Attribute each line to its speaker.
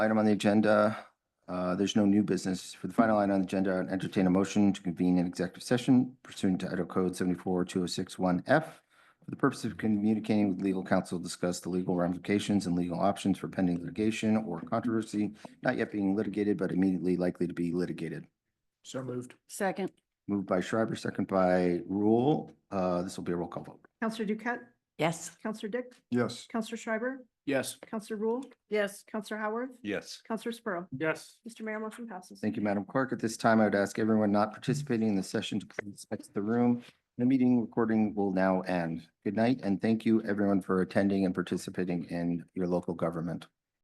Speaker 1: item on the agenda. Uh, There's no new business. For the final item on the agenda, I'd entertain a motion to convene an executive session pursuant to Idaho Code 742061F for the purpose of communicating with legal counsel, discuss the legal ramifications and legal options for pending litigation or controversy not yet being litigated but immediately likely to be litigated.
Speaker 2: So moved.
Speaker 3: Second,
Speaker 1: Moved by Schreiber, second by Rule. Uh, This will be a roll call vote.
Speaker 4: Counselor Duquette,
Speaker 3: yes.
Speaker 4: Counselor Dick,
Speaker 2: Yes.
Speaker 4: Counselor Schreiber,
Speaker 2: Yes.
Speaker 4: Counselor Rule,
Speaker 3: Yes.
Speaker 4: Counselor Howard,
Speaker 2: Yes.
Speaker 4: Counselor Sprow.
Speaker 2: Yes.
Speaker 4: Mr. Mayor, motion passes.
Speaker 1: Thank you, Madam Clerk. At this time, I would ask everyone not participating in the session to please exit the room. The meeting recording will now end. Good night, and thank you, everyone, for attending and participating in your local government.